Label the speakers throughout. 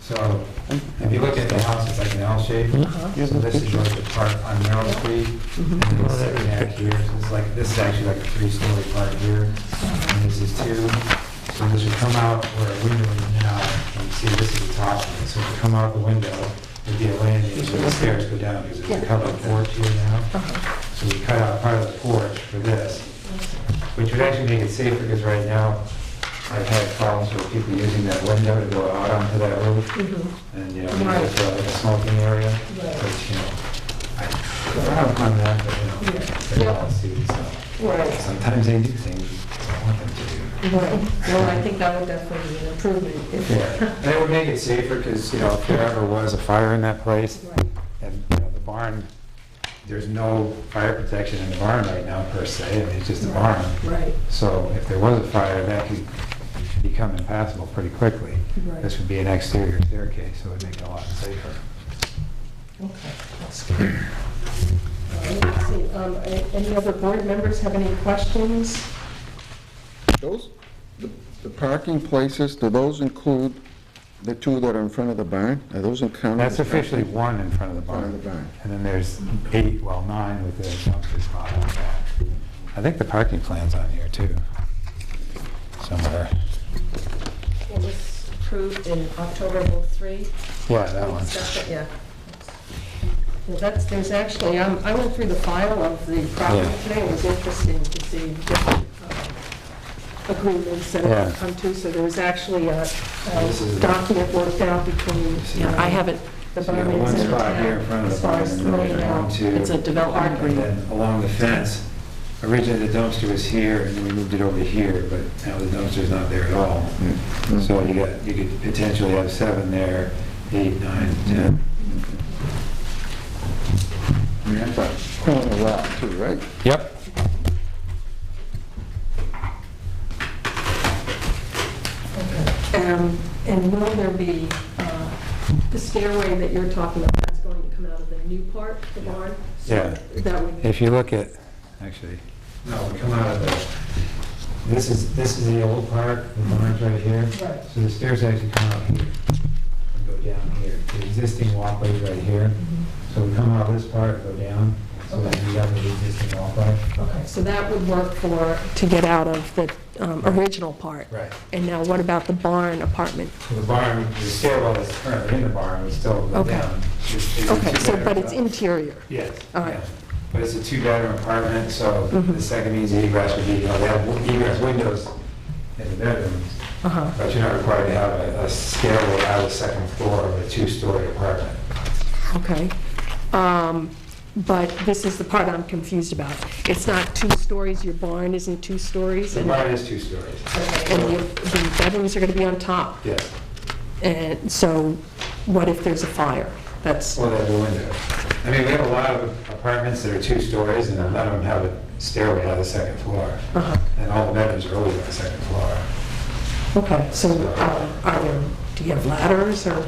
Speaker 1: So if you look at the house, it's like an L shape. So this is like the part on Merrill Street, and then it's sitting back here, so it's like, this is actually like a three-story part here, and this is two. So this would come out where a window is now, and you see this is the top, one. so if you come out the window, there'd be a landing, so the stairs go down, because it's a covered porch here now. So we cut out part of the porch for this, which would actually make it safer, because right now, I've had problems with people using that window to go out onto that roof,
Speaker 2: Mm-hmm.
Speaker 1: and, you know, it's uh, like a smoking area, which, you know, I, I don't mind that, but, you know, they're all students, so
Speaker 2: Right,
Speaker 1: sometimes they do things you don't want them to
Speaker 2: right. Well, I think that would definitely be an improvement if.
Speaker 1: do. Yeah, and it would make it safer, because, you know, if there ever was a fire in that place,
Speaker 2: Right.
Speaker 1: and, you know, the barn, there's no fire protection in the barn right now, per se, I mean, it's just a barn.
Speaker 2: Right,
Speaker 1: So if there was a fire, that could become impassable pretty quickly.
Speaker 2: Right.
Speaker 1: This would be an exterior staircase, so it would make it a lot safer.
Speaker 2: okay, that's good. All right, let's see, um, a- Any other board members have any questions?
Speaker 3: Those, the- the parking places, do those include the two that are in front of the barn? Are those in county?
Speaker 1: That's officially one in front of the barn.
Speaker 3: Front of the barn.
Speaker 1: And then there's eight, well, nine with the dumpster spot on that. I think the parking plan's on here too, somewhere.
Speaker 2: It was approved in October of '03.
Speaker 1: Yeah, that
Speaker 2: We
Speaker 1: one.
Speaker 2: discussed it, Yeah. Well, that's, there's actually, um, I went through the file of the property
Speaker 1: Yeah.
Speaker 2: today, it was interesting to see different um, agreements that have
Speaker 1: Yeah.
Speaker 2: come to, so there was actually a a
Speaker 1: This is-
Speaker 2: document worked out between.
Speaker 1: Yeah, I
Speaker 2: haven't. The
Speaker 1: So you have
Speaker 2: Burmans
Speaker 1: one
Speaker 2: and the
Speaker 1: spot here in
Speaker 2: town,
Speaker 1: front of
Speaker 2: as
Speaker 1: the
Speaker 2: far
Speaker 1: barn,
Speaker 2: as
Speaker 1: and then
Speaker 2: throwing
Speaker 1: there's one,
Speaker 2: out.
Speaker 1: two.
Speaker 2: It's a development
Speaker 1: And then along the fence, originally the dumpster was here, and then we moved it over here, but now the dumpster's not there at all. So you got, you could potentially have seven there, eight, nine, ten.
Speaker 3: I mean, that's a corner lot too, right?
Speaker 1: Yep.
Speaker 2: Um, And will there be, uh, the stairway that you're talking about, that's going to come out of the new part, the barn? So
Speaker 1: Yeah.
Speaker 2: That would,
Speaker 1: If you look at, actually, no, we come out of the, this is, this is the old part, the barn's right here.
Speaker 2: Right.
Speaker 1: So the stairs actually come out here and go down here. The existing walkway's right here.
Speaker 2: Mm-hmm.
Speaker 1: So we come out of this part, go down, so that we have the existing walkway.
Speaker 2: okay, so that would work for, to get out of the um, original part.
Speaker 1: Right.
Speaker 2: And now what about the barn apartment?
Speaker 1: So the barn, the stairwell that's currently in the barn would still go
Speaker 2: Okay.
Speaker 1: down. It's- it's a
Speaker 2: Okay, so,
Speaker 1: two-bedroom
Speaker 2: but it's
Speaker 1: house.
Speaker 2: interior.
Speaker 1: Yes.
Speaker 2: All right. Mm-hmm.
Speaker 1: yeah. But it's a two-bedroom apartment, so the second means the egress would be, you know, they have egress windows in the bedrooms,
Speaker 2: Uh-huh.
Speaker 1: but you're not required to have a a stairway out of the second floor of a two-story apartment.
Speaker 2: Okay. Um, But this is the part I'm confused about. It's not two stories, your barn isn't two stories,
Speaker 1: The
Speaker 2: and
Speaker 1: barn is two stories.
Speaker 2: and your- the bedrooms are going to be on top.
Speaker 1: Yes,
Speaker 2: And so what if there's a fire? That's,
Speaker 1: well, they have a window. I mean, we have a lot of apartments that are two stories, and none of them have a stairway out of the second floor.
Speaker 2: Uh-huh.
Speaker 1: And all the bedrooms are always on the second floor.
Speaker 2: okay, so uh, are there, do you have ladders or,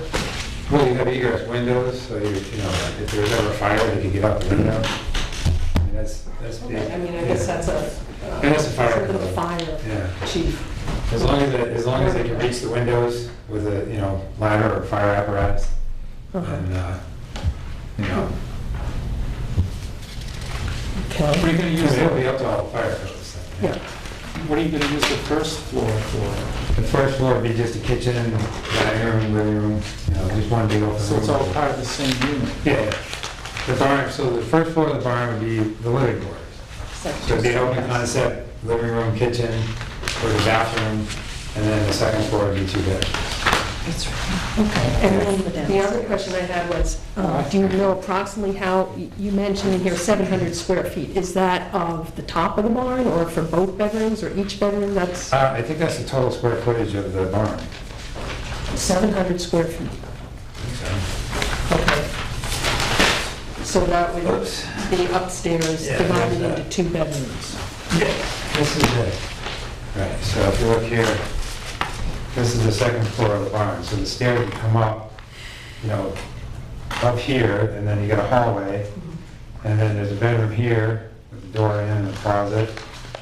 Speaker 1: Well, you have egress windows, so you, you know, if there's ever a fire, they could get out the window. I mean, that's, that's big.
Speaker 2: I mean, I guess that's a, uh,
Speaker 1: And that's a fire
Speaker 2: sort of a
Speaker 1: code.
Speaker 2: fire
Speaker 1: Yeah.
Speaker 2: chief.
Speaker 1: As long as, it- as long as they can reach the windows with a, you know, ladder or fire apparatus, and, uh, you know,
Speaker 4: What are
Speaker 2: Okay,
Speaker 4: you gonna use,
Speaker 1: because it'll
Speaker 4: the-
Speaker 1: be up to all the fire codes.
Speaker 2: yeah,
Speaker 4: what are you gonna use the first floor for?
Speaker 1: The first floor would be just a kitchen, dining room, living room, you know, just one big open room.
Speaker 4: So it's all part of the same unit?
Speaker 1: Yeah, the barn, so the first floor of the barn would be the living quarters. So it'd be an open concept, living room, kitchen, or the bathroom, and then the second floor would be two bedrooms.
Speaker 2: And then the other question I had was, uh, do you know approximately how, you mentioned in here 700 square feet. Is that of the top of the barn or for both bedrooms or each bedroom? That's
Speaker 1: Uh, I think that's the total square footage of the barn.
Speaker 2: 700 square feet. Okay. So that would
Speaker 1: Oops.
Speaker 2: be upstairs
Speaker 1: Yeah,
Speaker 2: divided
Speaker 1: that's, uh,
Speaker 2: into two bedrooms.
Speaker 1: This is it. Right, so if you look here, this is the second floor of the barn, so the stairs would come up, you know, up here, and then you got a hallway, and then there's a bedroom here, with a door in and a closet,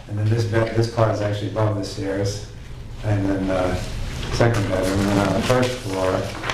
Speaker 1: and then this bed, this closet's actually above the stairs, and then the second bedroom, and then on the first floor,